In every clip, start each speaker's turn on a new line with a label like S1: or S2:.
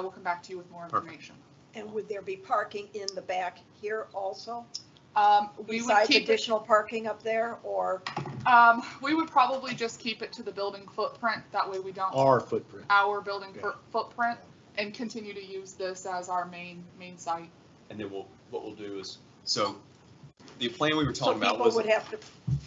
S1: I will come back to you with more
S2: Perfect.
S1: information.
S3: And would there be parking in the back here also?
S1: Um, we would
S3: Besides
S1: keep, it-
S3: additional parking up there or,
S1: um, we would probably just keep it to the building footprint, that way we don't,
S4: our footprint.
S1: our building
S4: Yeah.
S1: fo- footprint, and continue to use this as our main, main site.
S2: And then we'll, what we'll do is, so the plan we were
S3: so
S2: talking about
S3: people
S2: was.
S3: would have to,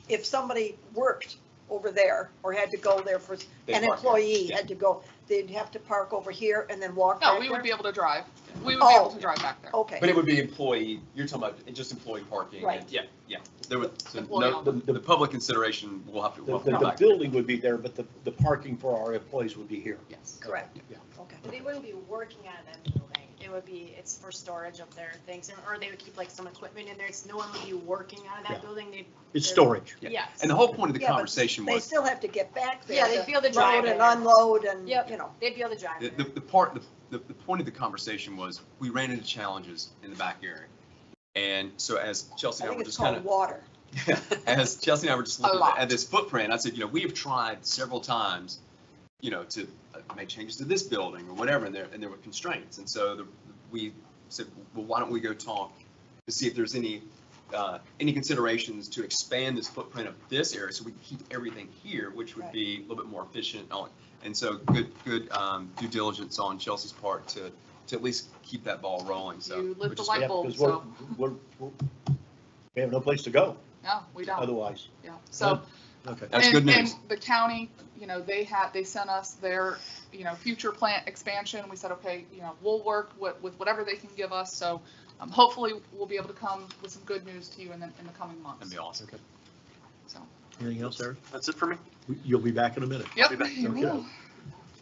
S3: if somebody worked over there or had to go there for,
S2: they park
S3: an
S2: there.
S3: employee
S2: Yeah.
S3: had to go, they'd have to park over here and then walk
S1: No,
S3: back
S1: we would be
S3: there?
S1: able to drive, we would be able
S3: Oh.
S1: to drive back there.
S3: Okay.
S2: But it would be employee, you're talking about just employee parking and,
S3: Right.
S2: yeah, yeah. There would, so
S1: Employee
S2: no, the, the public consideration, we'll have to,
S4: The,
S2: we'll
S4: the-
S2: come
S4: the
S2: back.
S4: building would be there, but the, the parking for our employees would be here.
S1: Yes.
S3: Correct,
S4: Yeah.
S3: okay.
S5: They wouldn't be working on that building. It would be, it's for storage of their things, and- or they would keep like some equipment in there. It's, no one would be working on
S4: Yeah.
S5: that building. They'd,
S4: It's storage.
S2: Yeah.
S5: yes.
S2: And the whole point of the
S3: Yeah, but
S2: conversation
S3: They
S2: was,
S3: still have to get back there.
S5: Yeah, they'd
S3: to
S5: be able to drive
S3: Load and
S5: there.
S3: unload and,
S5: Yep.
S3: you know,
S5: They'd be able to drive
S2: the,
S5: there.
S2: the the part, the, the- the point of the conversation was, we ran into challenges in the back area. And so as Chelsea
S3: I
S2: and I
S3: think
S2: were
S3: it's
S2: just kind
S3: called
S2: of.
S3: water.
S2: as Chelsea and I were just
S1: A
S2: looking
S1: lot.
S2: at this footprint, I said, you know, we have tried several times, you know, to uh, make changes to this building or whatever, and there, and there were constraints. And so the, we said, well, why don't we go talk to see if there's any, uh, any considerations to expand this footprint of this area so we can keep everything here, which would
S3: Right.
S2: be a little bit more efficient. on- And so good, good, um, due diligence on Chelsea's part to, to at least keep that ball rolling, so.
S1: You lit
S2: which
S1: the
S2: is
S1: light
S2: great.
S4: Yeah,
S1: bulb,
S4: 'cause we're-
S1: so.
S4: we're- we're- We have no place to go
S1: No, we don't,
S4: otherwise.
S1: yeah, so.
S4: Okay.
S2: That's
S1: And-
S2: good news.
S1: And the county, you know, they had, they sent us their, you know, future plant expansion. We said, okay, you know, we'll work with, with whatever they can give us. So um, hopefully we'll be able to come with some good news to you in the, in the coming months.
S2: That'd be awesome.
S4: Okay.
S1: So,
S4: Anything else, Eric?
S6: That's it for me.
S4: We- You'll be back in a minute.
S1: yep.
S6: back.
S1: you
S4: Okay.
S1: will.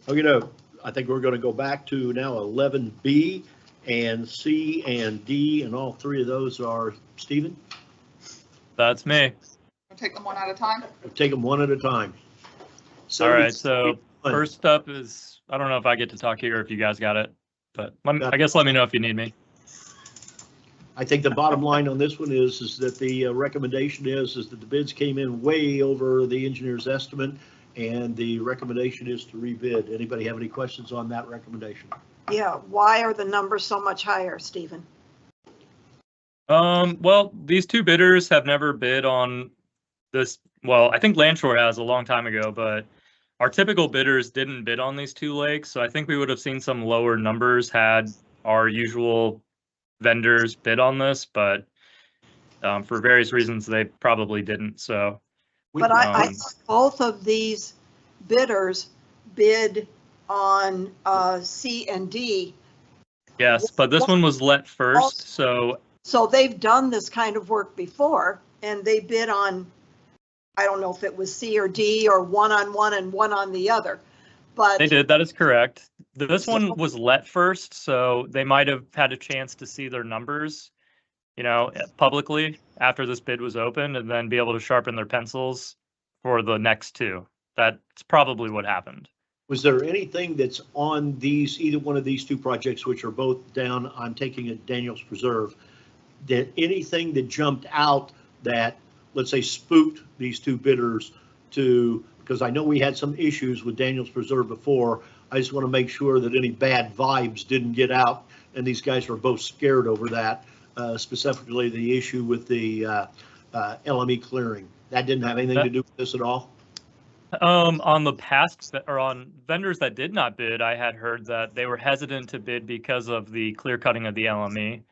S4: Oh, you know, I think we're going to go back to now 11B and C and D, and all three of those are, Stephen,
S7: That's me.
S1: We'll Take them one at a time.
S4: take them one at a time.
S7: All right, so
S4: 71.
S7: first up is, I don't know if I get to talk here or if you guys got it, but let me- I guess let me know if you need me.
S4: I think the bottom line on this one is, is that the uh, recommendation is, is that the bids came in way over the engineer's estimate, and the recommendation is to rebid. Anybody have any questions on that recommendation?
S3: Yeah, why are the numbers so much higher, Stephen?
S7: Um, well, these two bidders have never bid on this. Well, I think Landshore has a long time ago, but our typical bidders didn't bid on these two lakes, so I think we would have seen some lower numbers had our usual vendors bid on this, but um, for various reasons, they probably didn't, so.
S3: But I, I
S7: Um,
S3: thought both of these bidders bid on uh, C and D.
S7: Yes, but this one was let first, so
S3: So they've done this kind of work before and they bid on, I don't know if it was C or D or one on one and one on the other. But
S7: they did, that is correct. Th- This
S3: So-
S7: one was let first, so they might have had a chance to see their numbers, you know, eh, publicly after this bid was opened and then be able to sharpen their pencils for the next two. That's probably what happened.
S4: Was there anything that's on these, either one of these two projects, which are both down, I'm taking it Daniel's Preserve, that anything that jumped out that, let's say, spooked these two bidders to, because I know we had some issues with Daniel's Preserve before. I just want to make sure that any bad vibes didn't get out, and these guys were both scared over that, uh, specifically the issue with the uh, uh, LME clearing. That didn't have anything to do with this at all?
S7: Um, on the past, ve- or on vendors that did not bid, I had heard that they were hesitant to bid because of the clear cutting of the LME.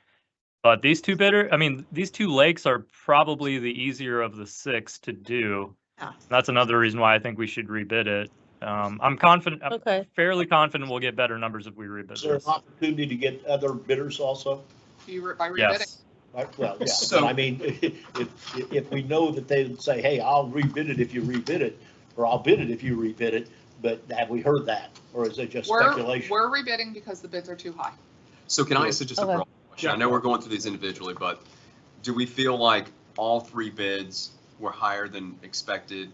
S7: But these two bidder, I mean, these two lakes are probably the easier of the six to do.
S3: Yeah.
S7: That's another reason why I think we should rebid it. Um, I'm confident, I'm
S8: Okay,
S7: fairly confident we'll get better numbers if we rebid
S4: Is there an
S7: this.
S4: opportunity to get other bidders also?
S1: You re- By rebidding.
S7: Yes,
S4: Right, Well, yeah,
S2: So-
S4: but I mean, if, if- if we know that they would say, hey, I'll rebid it if you rebid it, or I'll bid it if you rebid it, but have we heard that? Or is it just
S1: We're,
S4: speculation?
S1: we're rebidding because the bids are too high.
S2: So can I answer just a
S8: Okay.
S2: broad question? I know we're going through these individually, but do we feel like all three bids were higher than expected?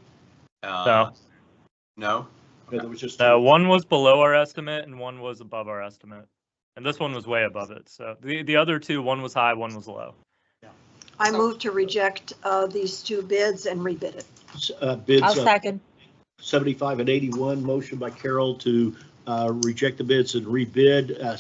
S2: Uh, No?
S4: No, there was just-
S7: uh, one was below our estimate and one was above our estimate. And this one was way above it. So the, the other two, one was high, one was low.
S3: I move to reject uh, these two bids and rebid it.
S4: uh, Bids
S8: I'll
S4: of
S8: second.
S4: 75 and 81, motion by Carol to uh, reject the bids and rebid. Uh,